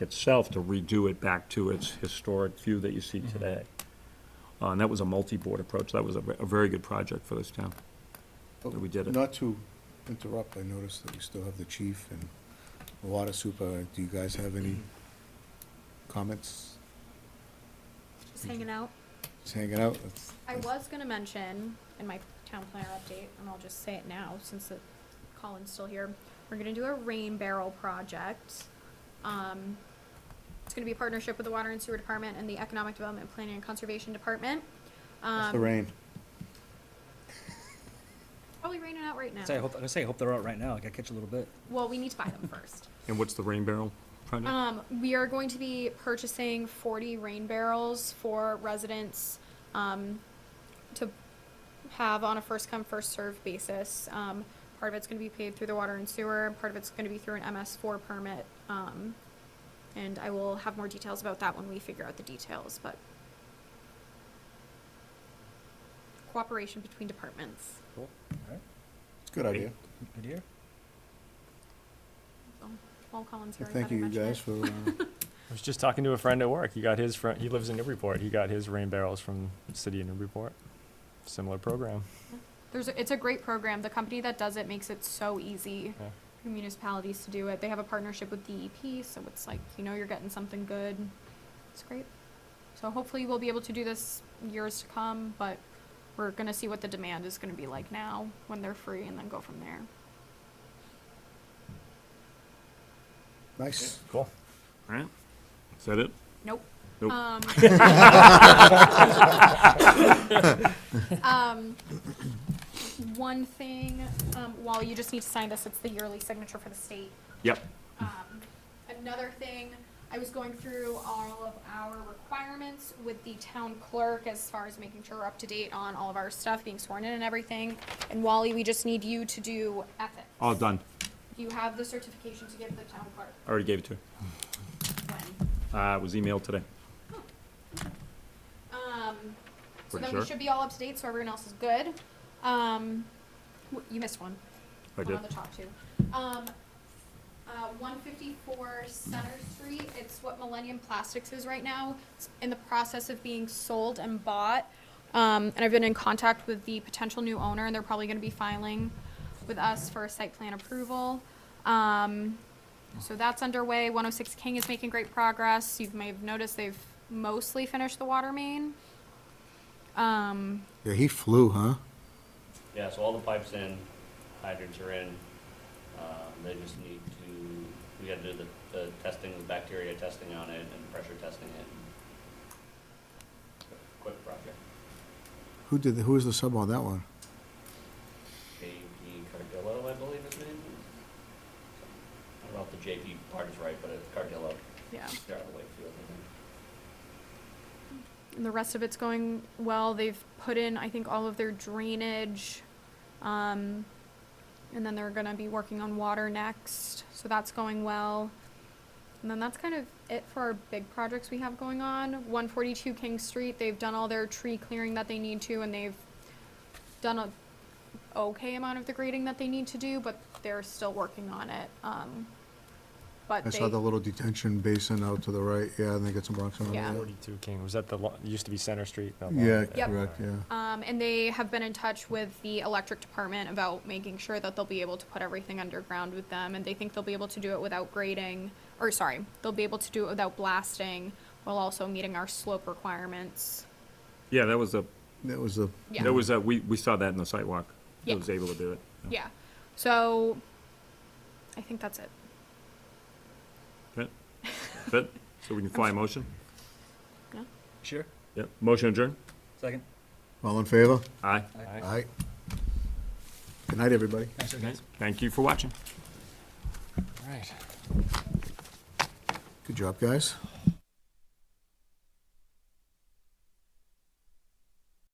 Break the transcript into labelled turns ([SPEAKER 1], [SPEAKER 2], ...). [SPEAKER 1] itself to redo it back to its historic view that you see
[SPEAKER 2] Mm-hmm.
[SPEAKER 1] today. Uh, And that was a multi-board approach. That was a ve- a very good project for this town. that we did it.
[SPEAKER 3] Not to interrupt, I noticed that we still have the chief and the water super. Do you guys have any comments?
[SPEAKER 4] Just hanging out.
[SPEAKER 3] Just hanging out? That's-
[SPEAKER 4] I was gonna mention in my town planner update, and I'll just say it now since the Colin's still here. We're gonna do a rain barrel project. Um, it's gonna be a partnership with the Water and Sewer Department and the Economic Development Planning and Conservation Department.
[SPEAKER 3] That's the
[SPEAKER 4] Um,
[SPEAKER 3] rain.
[SPEAKER 4] probably raining out right
[SPEAKER 5] Say, I
[SPEAKER 4] now.
[SPEAKER 5] hope, I say, I hope they're out right now. I gotta catch a little bit.
[SPEAKER 4] Well, we need to buy them first.
[SPEAKER 1] And what's the rain barrel project?
[SPEAKER 4] Um, we are going to be purchasing forty rain barrels for residents, um, to have on a first come, first served basis. Um, part of it's gonna be paid through the water and sewer, and part of it's gonna be through an MS four permit. Um, and I will have more details about that when we figure out the details, but cooperation between departments.
[SPEAKER 5] Cool. All right.
[SPEAKER 3] It's a good idea.
[SPEAKER 5] Good here.
[SPEAKER 4] So, Paul Collins here.
[SPEAKER 3] Well,
[SPEAKER 4] I
[SPEAKER 3] Thank
[SPEAKER 4] thought I
[SPEAKER 3] you, you
[SPEAKER 4] mentioned
[SPEAKER 3] guys,
[SPEAKER 4] it.
[SPEAKER 3] for, uh,
[SPEAKER 2] I was just talking to a friend at work. He got his fr- he lives in Newburyport. He got his rain barrels from the city of Newburyport. Similar program.
[SPEAKER 4] There's, a- it's a great program. The company that does it makes it so easy
[SPEAKER 2] Yeah.
[SPEAKER 4] for municipalities to do it. They have a partnership with DEP, so it's like, you know, you're getting something good. It's great. So hopefully we'll be able to do this years to come, but we're gonna see what the demand is gonna be like now when they're free and then go from there.
[SPEAKER 3] nice.
[SPEAKER 2] Cool.
[SPEAKER 1] All right, is that it?
[SPEAKER 4] Nope.
[SPEAKER 1] Nope.
[SPEAKER 4] Um, um, one thing, um, while you just need to sign this, it's the yearly signature for the state.
[SPEAKER 1] Yep.
[SPEAKER 4] Um, another thing, I was going through all of our requirements with the town clerk as far as making sure we're up to date on all of our stuff, being sworn in and everything. And Wally, we just need you to do ethics.
[SPEAKER 1] All done.
[SPEAKER 4] You have the certification to give the town clerk
[SPEAKER 1] I Already gave it to her.
[SPEAKER 4] when.
[SPEAKER 1] Uh, it was emailed today.
[SPEAKER 4] Um, so
[SPEAKER 1] Pretty
[SPEAKER 4] then
[SPEAKER 1] sure.
[SPEAKER 4] we should be all up to date, so everyone else is good. Um, w- you missed one.
[SPEAKER 1] I
[SPEAKER 4] one
[SPEAKER 1] did.
[SPEAKER 4] on the top two. Um, uh, one fifty-four Center Street, it's what Millennium Plastics is right now. It's in the process of being sold and bought. Um, and I've been in contact with the potential new owner, and they're probably gonna be filing with us for a site plan approval. Um, so that's underway. One oh six King is making great progress. You may have noticed they've mostly finished the water main. Um,
[SPEAKER 3] Yeah, he flew, huh?
[SPEAKER 6] Yeah, so all the pipes in, hydrants are in, um, they just need to, we gotta do the, the testing, the bacteria testing on it and pressure testing it. Quick project,
[SPEAKER 3] Who did, the- who was the sub on that one?
[SPEAKER 6] JP Cardillo, I believe his name is. I don't know if the JP part is right, but it's Cardillo,
[SPEAKER 4] yeah.
[SPEAKER 6] they're out of Wakefield, I think.
[SPEAKER 4] And the rest of it's going well. They've put in, I think, all of their drainage. Um, and then they're gonna be working on water next, so that's going well. And then that's kind of it for our big projects we have going on. One forty-two King Street, they've done all their tree clearing that they need to, and they've done a okay amount of the grading that they need to do, but they're still working on it. Um, but
[SPEAKER 3] I
[SPEAKER 4] they,
[SPEAKER 3] saw the little detention basin out to the right, yeah, I think it's a Bronx one.
[SPEAKER 4] Yeah.
[SPEAKER 2] Forty-two King was that the lo- used to be Center Street. that lot?
[SPEAKER 3] Yeah,
[SPEAKER 4] Yep.
[SPEAKER 3] correct, yeah.
[SPEAKER 4] Um, and they have been in touch with the electric department about making sure that they'll be able to put everything underground with them, and they think they'll be able to do it without grading, or sorry, they'll be able to do it without blasting, while also meeting our slope requirements.
[SPEAKER 1] Yeah, that was a,
[SPEAKER 3] That was the,
[SPEAKER 4] Yeah.
[SPEAKER 1] that was a, we, we saw that in the sidewalk.
[SPEAKER 4] Yeah.
[SPEAKER 1] It was able to do it.
[SPEAKER 4] Yeah, so, I think that's it.
[SPEAKER 1] Fit? Fit? So we can fly a motion?
[SPEAKER 4] No?
[SPEAKER 5] Sure.
[SPEAKER 1] Yep. Motion adjourned?
[SPEAKER 5] Second.
[SPEAKER 3] all in favor?
[SPEAKER 1] Aye.
[SPEAKER 5] Aye.
[SPEAKER 3] Aye. Good night, everybody.
[SPEAKER 5] Thanks, guys.
[SPEAKER 1] Thank you for watching.
[SPEAKER 2] All right.
[SPEAKER 3] Good job, guys.